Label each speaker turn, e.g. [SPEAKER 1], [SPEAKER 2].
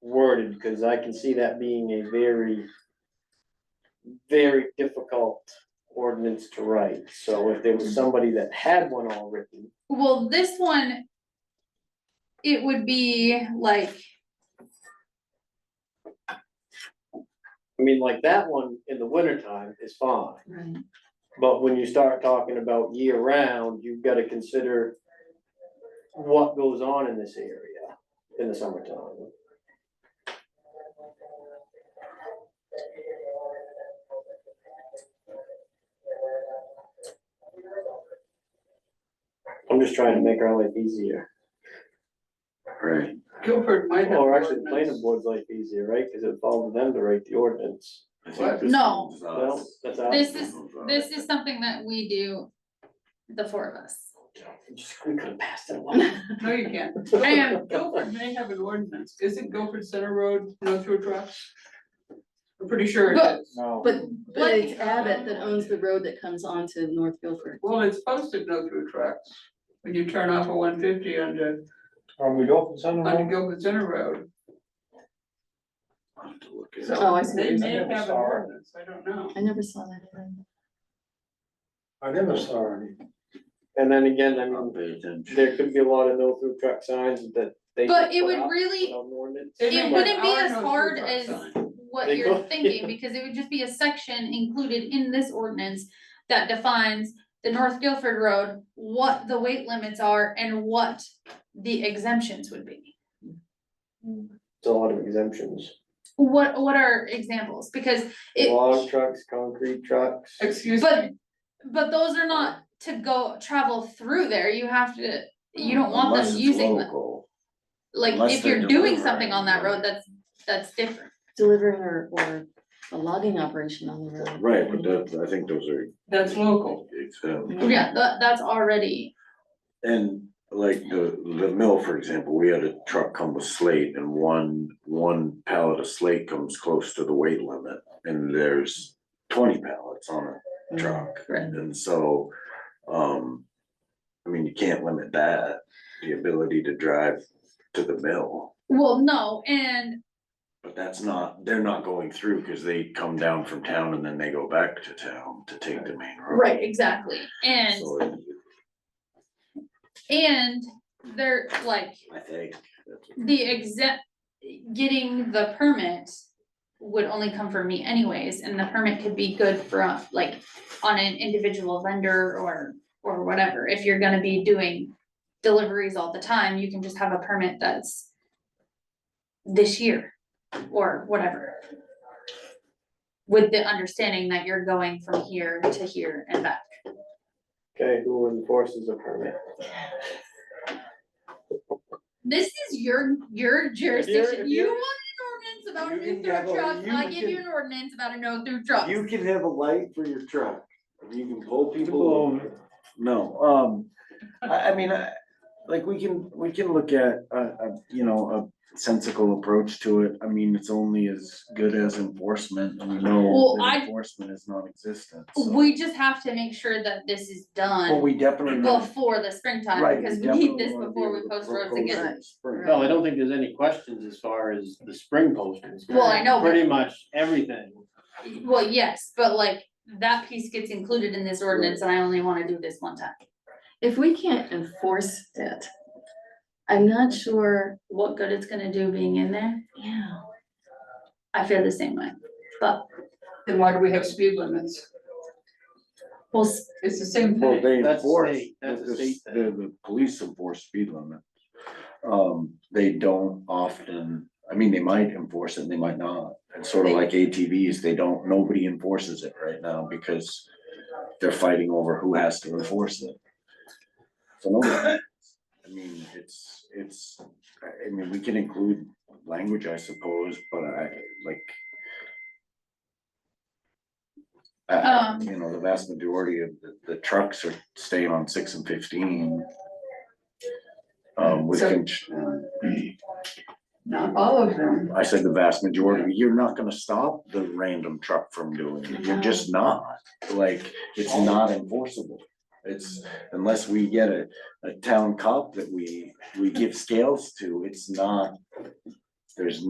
[SPEAKER 1] worded, because I can see that being a very, very difficult ordinance to write, so if there was somebody that had one all written,
[SPEAKER 2] Well, this one. It would be like,
[SPEAKER 1] I mean, like that one in the wintertime is fine. But when you start talking about year round, you've gotta consider what goes on in this area in the summertime. I'm just trying to make our life easier,
[SPEAKER 3] Right,
[SPEAKER 4] Guilford might have.
[SPEAKER 1] or actually, the planning
[SPEAKER 4] ordinance.
[SPEAKER 1] board's life easier, right, cause it falls to them to write the ordinance.
[SPEAKER 3] I think this uh,
[SPEAKER 2] No.
[SPEAKER 3] one's
[SPEAKER 1] Well,
[SPEAKER 3] us.
[SPEAKER 1] that's out.
[SPEAKER 2] This is- this is something that we do, the four of us.
[SPEAKER 1] Just, we could've passed it along.
[SPEAKER 4] No, you can't. And Guilford may have an ordinance. Isn't Guilford Center Road no through trucks? I'm pretty sure it
[SPEAKER 5] But-
[SPEAKER 4] is.
[SPEAKER 1] No.
[SPEAKER 5] But,
[SPEAKER 2] What?
[SPEAKER 5] but it's Abbott that owns the road that comes onto North Guilford.
[SPEAKER 4] Well, it's posted no through trucks. When you turn off a one fifty onto,
[SPEAKER 6] Are we open Center
[SPEAKER 4] onto
[SPEAKER 6] Road?
[SPEAKER 4] Guilford Center Road.
[SPEAKER 3] I'll have to look at it.
[SPEAKER 5] Oh, I see. what
[SPEAKER 4] They
[SPEAKER 5] you're
[SPEAKER 4] may
[SPEAKER 5] saying.
[SPEAKER 4] have an ordinance, I don't know.
[SPEAKER 5] I never saw that. either.
[SPEAKER 6] I never saw any.
[SPEAKER 1] And then again, I
[SPEAKER 3] I'll
[SPEAKER 1] mean,
[SPEAKER 3] pay attention.
[SPEAKER 1] there could be a lot of no through truck signs that they.
[SPEAKER 2] But
[SPEAKER 1] just
[SPEAKER 2] it
[SPEAKER 1] put
[SPEAKER 2] would
[SPEAKER 1] up
[SPEAKER 2] really-
[SPEAKER 1] without an ordinance.
[SPEAKER 4] They
[SPEAKER 2] It
[SPEAKER 4] make
[SPEAKER 2] wouldn't be
[SPEAKER 4] our
[SPEAKER 2] as
[SPEAKER 4] no through
[SPEAKER 2] hard
[SPEAKER 4] truck
[SPEAKER 2] as
[SPEAKER 4] sign.
[SPEAKER 2] what
[SPEAKER 1] They
[SPEAKER 2] you're
[SPEAKER 1] go-
[SPEAKER 2] thinking, because it would just be a section included in this ordinance that defines the North Guilford Road, what the weight limits are and what the exemptions would be.
[SPEAKER 1] It's a lot of exemptions,
[SPEAKER 2] What, what are examples? Because
[SPEAKER 1] log
[SPEAKER 2] it,
[SPEAKER 1] trucks, concrete trucks,
[SPEAKER 4] Excuse me.
[SPEAKER 2] but, but those are not to go travel through there. You have to, you don't want
[SPEAKER 3] Unless
[SPEAKER 2] them
[SPEAKER 3] it's
[SPEAKER 2] using, the-
[SPEAKER 3] local.
[SPEAKER 2] like,
[SPEAKER 3] unless
[SPEAKER 2] if
[SPEAKER 3] they're
[SPEAKER 2] you're doing something
[SPEAKER 3] delivering,
[SPEAKER 2] on that road,
[SPEAKER 3] right.
[SPEAKER 2] that's, that's different.
[SPEAKER 5] Delivering or, or a logging operation on the road.
[SPEAKER 3] Right, but that, I think those are.
[SPEAKER 4] That's local.
[SPEAKER 3] Exempt.
[SPEAKER 2] Yeah, that, that's already
[SPEAKER 3] And like the, the mill, for example, we had a truck come with slate and one, one pallet of slate comes close to the weight limit. And there's twenty pallets on a truck.
[SPEAKER 2] Mm, Right.
[SPEAKER 3] And so, um, I mean, you can't limit that, the ability to drive to the mill.
[SPEAKER 2] Well, no, and
[SPEAKER 3] But that's not, they're not going through because they come down from town and then they go back to town to take the main road.
[SPEAKER 2] right, exactly, and
[SPEAKER 3] So it-
[SPEAKER 2] and they're like
[SPEAKER 3] I think. that's-
[SPEAKER 2] the exempt. Getting the permit would only come from me anyways, and the permit could be good for uh, like on an individual vendor or or whatever. If you're gonna be doing deliveries all the time, you can just have a permit that's this year or whatever. With the understanding that you're going from here to here and back.
[SPEAKER 1] okay, who enforces a permit?
[SPEAKER 2] This is your, your jurisdiction, you
[SPEAKER 1] you're-
[SPEAKER 2] want
[SPEAKER 1] you
[SPEAKER 2] an ordinance
[SPEAKER 1] can
[SPEAKER 2] about a
[SPEAKER 1] have
[SPEAKER 2] no-through
[SPEAKER 1] a-
[SPEAKER 2] truck,
[SPEAKER 1] you
[SPEAKER 2] I give you
[SPEAKER 1] can-
[SPEAKER 2] an ordinance about a no-through truck.
[SPEAKER 3] You can have a light for your truck, I mean, you can pull people
[SPEAKER 6] People own
[SPEAKER 3] over.
[SPEAKER 6] it.
[SPEAKER 3] No, um, I, I mean, I, like, we can, we can look at, a a you know, a sensical approach to it. I mean, it's only as good as enforcement, and we know
[SPEAKER 2] Well,
[SPEAKER 3] that
[SPEAKER 2] I-
[SPEAKER 3] enforcement is non-existent, so.
[SPEAKER 2] We just have to make sure that this is
[SPEAKER 3] But
[SPEAKER 2] done
[SPEAKER 3] we definitely. know-
[SPEAKER 2] before the springtime,
[SPEAKER 3] right,
[SPEAKER 2] because we
[SPEAKER 3] definitely
[SPEAKER 2] need this
[SPEAKER 3] wanna be
[SPEAKER 2] before we
[SPEAKER 3] able to
[SPEAKER 2] post roads
[SPEAKER 3] propose
[SPEAKER 2] again.
[SPEAKER 3] it in spring.
[SPEAKER 5] Right.
[SPEAKER 1] No, I don't think there's any questions as far as the spring postings.
[SPEAKER 2] Well, I know, but-
[SPEAKER 1] Pretty much everything.
[SPEAKER 2] Well, yes, but like, that piece gets included in this ordinance, and I only wanna do this one time.
[SPEAKER 5] If we can't enforce it, I'm not sure,
[SPEAKER 2] What good it's gonna do being in there,
[SPEAKER 5] yeah,
[SPEAKER 2] I feel the same way, but
[SPEAKER 4] Then why do we have speed limits?
[SPEAKER 2] we'll, s-
[SPEAKER 4] It's the same
[SPEAKER 3] Well,
[SPEAKER 4] thing.
[SPEAKER 3] they
[SPEAKER 1] That's a
[SPEAKER 3] enforce,
[SPEAKER 1] state- that's a
[SPEAKER 3] the-
[SPEAKER 1] state
[SPEAKER 3] the,
[SPEAKER 1] thing.
[SPEAKER 3] the police enforce speed limit. Um, they don't often, I mean, they might enforce it, and they might not, it's sort of like ATVs, they don't, nobody enforces it right now because. They're fighting over who has to enforce it. So, no, I mean, it's, it's, I mean, we can include language, I suppose, but I, like. I-
[SPEAKER 2] Um.
[SPEAKER 3] you know, the vast majority of the, the trucks are staying on six and fifteen. Um, with,
[SPEAKER 4] So-
[SPEAKER 3] con-
[SPEAKER 4] Uh, Not all of them.
[SPEAKER 3] I said the vast majority, you're not gonna stop the random truck from doing it, you're just not, like, it's not enforceable. It's, unless we get a, a town cop that we, we give scales to, it's not, there's